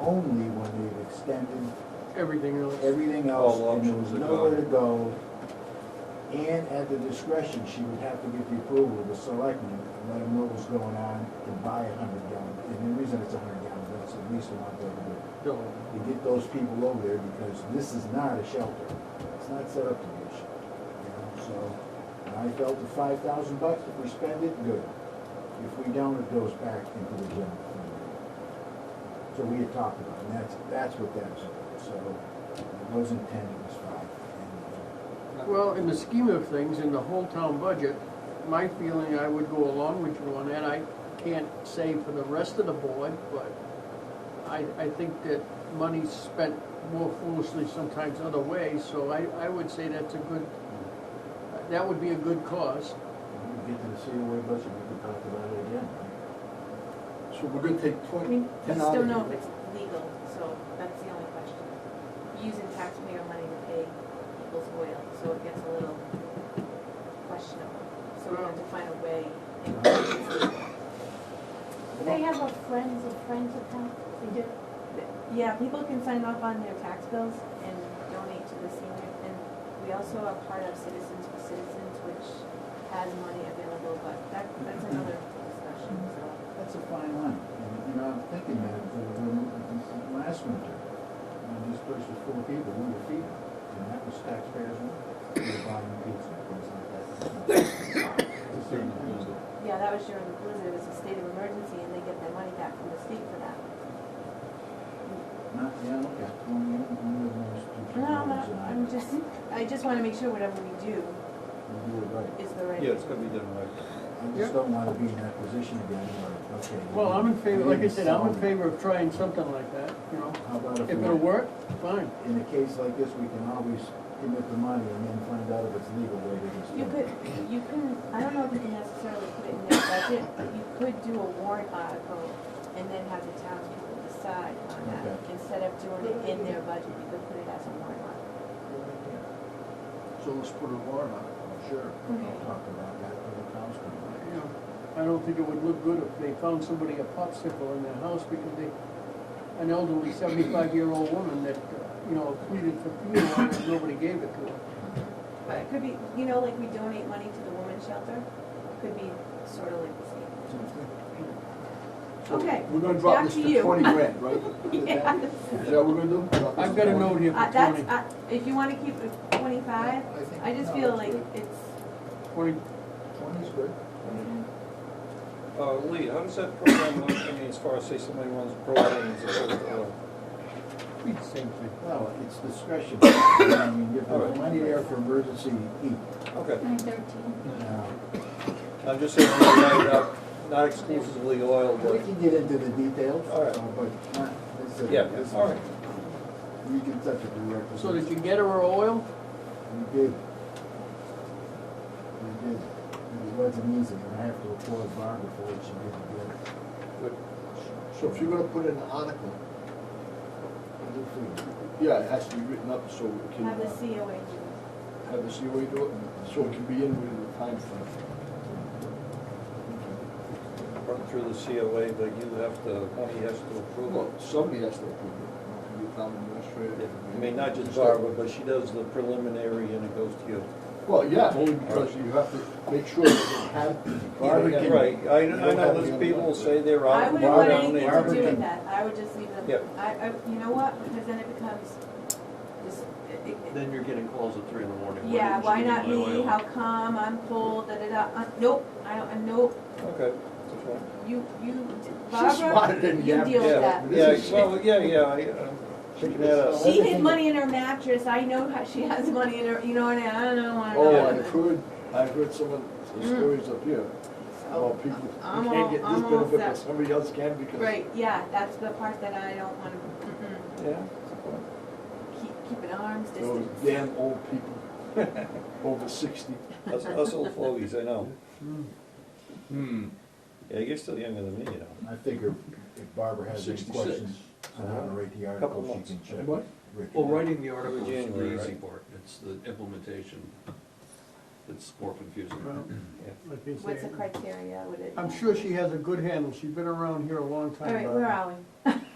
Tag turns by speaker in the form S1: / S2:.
S1: only when they've extended
S2: everything else.
S1: everything else,
S3: All
S1: and there
S3: options
S1: was
S3: are
S1: nowhere to
S3: gone.
S1: go. And at the discretion, she would have to get the approval of the selectmen and let them know what's going on to buy a hundred gallon. And the reason it's a hundred gallon, that's at least one thing to do,
S2: No.
S1: to get those people over there, because this is not a shelter. It's not set up to be a shelter, you know, so. And I felt the five thousand bucks, if we spend it, good. If we don't, it goes back into the general fund. So we had talked about, it, and that's, that's what that's, so it wasn't ten, it was five. And,
S2: Well, in the scheme of things, in the whole town budget, my feeling, I would go along with you on that. I can't say for the rest of the board, but I, I think that money's spent more foolishly sometimes other ways, so I, I would say that's a good, that would be a good cause.
S1: uh, When we get to the COA budget, we can talk about it again. right?
S4: So we're gonna take
S5: I
S4: twenty,
S5: mean, we
S4: ten out
S5: still
S4: of
S5: know if
S4: here.
S5: it's legal, so that's the only question. Using taxpayer money to pay people's oil, so it gets a little questionable. So we have to find a way.
S6: They have a friends of friends account, they do.
S5: Yeah, people can sign up on their tax bills and donate to the senior. And we also are part of Citizens for Citizens, which has money available, but that, that's another discussion, so.
S1: That's a fine line. And, you know, I'm thinking that, uh, when- last winter, when this place was full of people, we were feeding, and that was taxpayers' money. We were buying pizza, things like that. It's the same thing.
S5: Yeah, that was during the blizzard, it was a state of emergency, and they get their money back from the state for that.
S1: Not, yeah, okay. One of the- one of the most
S5: No,
S1: stupid ones
S5: I'm not-
S1: that I
S5: I'm
S1: know.
S5: just, I just wanna make sure whatever we do
S1: We do it right.
S5: is the right.
S3: Yeah, it's gonna be done right.
S1: I
S2: Yeah.
S1: just don't wanna be in that position again, where, okay.
S2: Well, I'm in favor, like I said, I'm in
S1: Solid.
S2: favor of trying something like that, you know.
S1: How about if
S2: If it'll
S1: we,
S2: work, fine.
S1: in a case like this, we can always commit the money and then find out if it's legal later this year.
S5: You could, you can, I don't know if you can necessarily put it in their budget, but you could do a warrant article and then have the townspeople decide on that.
S1: Okay.
S5: Instead of doing it in their budget, you could put it as a warrant article.
S4: So let's put a warrant on it, sure.
S1: I'll talk about that when it comes to
S2: You know, I don't think it would look good if they found somebody a popsicle in their house because they, an elderly seventy-five-year-old woman that, uh, you know, pleaded for funeral and nobody gave it to her.
S5: But it could be, you know, like we donate money to the women's shelter, could be sort of like the same.
S4: So
S5: Okay,
S4: We're gonna drop
S5: back
S4: this
S5: to
S4: to
S5: you.
S4: twenty grand, right?
S5: Yes.
S4: Is that what we're gonna do? Drop this
S2: I've
S4: to
S2: got a
S4: 20?
S2: note here
S5: Uh,
S2: for
S5: that's,
S2: twenty,
S5: uh, if you wanna keep it twenty-five,
S4: think-
S5: I just
S4: no,
S5: feel like
S4: that's good.
S5: it's,
S2: twenty,
S1: Twenty's good.
S3: Uh, Lee, how does that program look, I mean, as far as say somebody runs programs or something?
S2: be the same thing.
S1: Well, it's discretion. I mean, if
S3: All
S1: there's
S3: right.
S1: money there for emergency, uh, eat.
S3: Okay,
S6: Nine thirteen.
S1: Now,
S3: I'm just saying, I'm gonna write it up, not exclusively oil,
S1: We
S3: but,
S1: can get into the details,
S3: All right.
S1: uh, but not, this is.
S3: yeah,
S1: this is-
S3: all right.
S1: You can touch it directly.
S2: So did you get her oil?
S1: We did. We did. It wasn't easy, and I have to applaud Barbara for what she did to get it.
S3: Good.
S4: So if you're gonna put in an article,
S1: Good for you.
S4: yeah, it has to be written up so we can.
S5: have the
S4: uh,
S5: COA do it.
S4: Have the COA do it, and so it can be in with the time frame.
S3: Run through the COA, but you have to, Tony has to approve
S4: Well,
S3: it.
S4: somebody has to approve it. It can be town administrator.
S3: I mean, not just Barbara, but she does the preliminary and it goes to you.
S4: Well, yeah, only because you have to make sure that they have.
S1: Barbara can-
S3: Right, I, I know there's people who say they're
S5: I
S3: out.
S5: wouldn't want
S3: down
S5: anything
S3: there.
S5: to do with that, I would just leave
S3: Yep.
S5: them, I, I, you know what, because then it becomes, this, it- it-
S7: Then you're getting calls at three in the morning.
S5: yeah,
S7: didn't
S5: why
S7: you
S5: not
S7: do my
S5: me,
S7: oil?
S5: how come, I'm full, da da da, uh, nope, I don't, uh, nope,
S3: Okay. that's fine.
S5: you, you,
S4: She's smarter
S5: Barbara,
S4: than
S5: you
S4: you have to
S5: deal with
S3: Yeah,
S5: that.
S4: This is-
S3: Yeah, well, yeah, yeah, I, I'm picking that up.
S5: She hid money in her mattress, I know how she has money in her, you know, and I don't wanna know.
S4: Oh, I've heard, I've heard some of the
S5: Mm.
S4: stories up here
S5: So,
S4: about people who
S5: I'm
S4: can't
S5: all-
S4: get this
S5: I'm all
S4: benefit, but
S5: set.
S4: somebody else can because.
S5: Right, yeah, that's the part that I don't wanna, mm-mm,
S3: Yeah.
S5: keep, keep an arms
S4: Those
S5: distance.
S4: damn old people, over sixty.
S3: Us, us old fogies, I know.
S7: Hmm.
S3: Yeah, you're still younger than me, you know.
S1: I figure if Barbara has any
S4: 66.
S1: questions on how to write the
S3: Couple
S1: article,
S3: months.
S1: she can check.
S4: What?
S1: Rick.
S7: Well, writing the article is
S3: January,
S7: the easy
S3: right?
S7: part, it's the implementation that's more confusing.
S2: Well, like they
S5: What's
S2: say.
S5: the criteria, would it?
S2: I'm sure she has a good handle, she's been around here a long
S5: All
S2: time.
S5: right, where are we?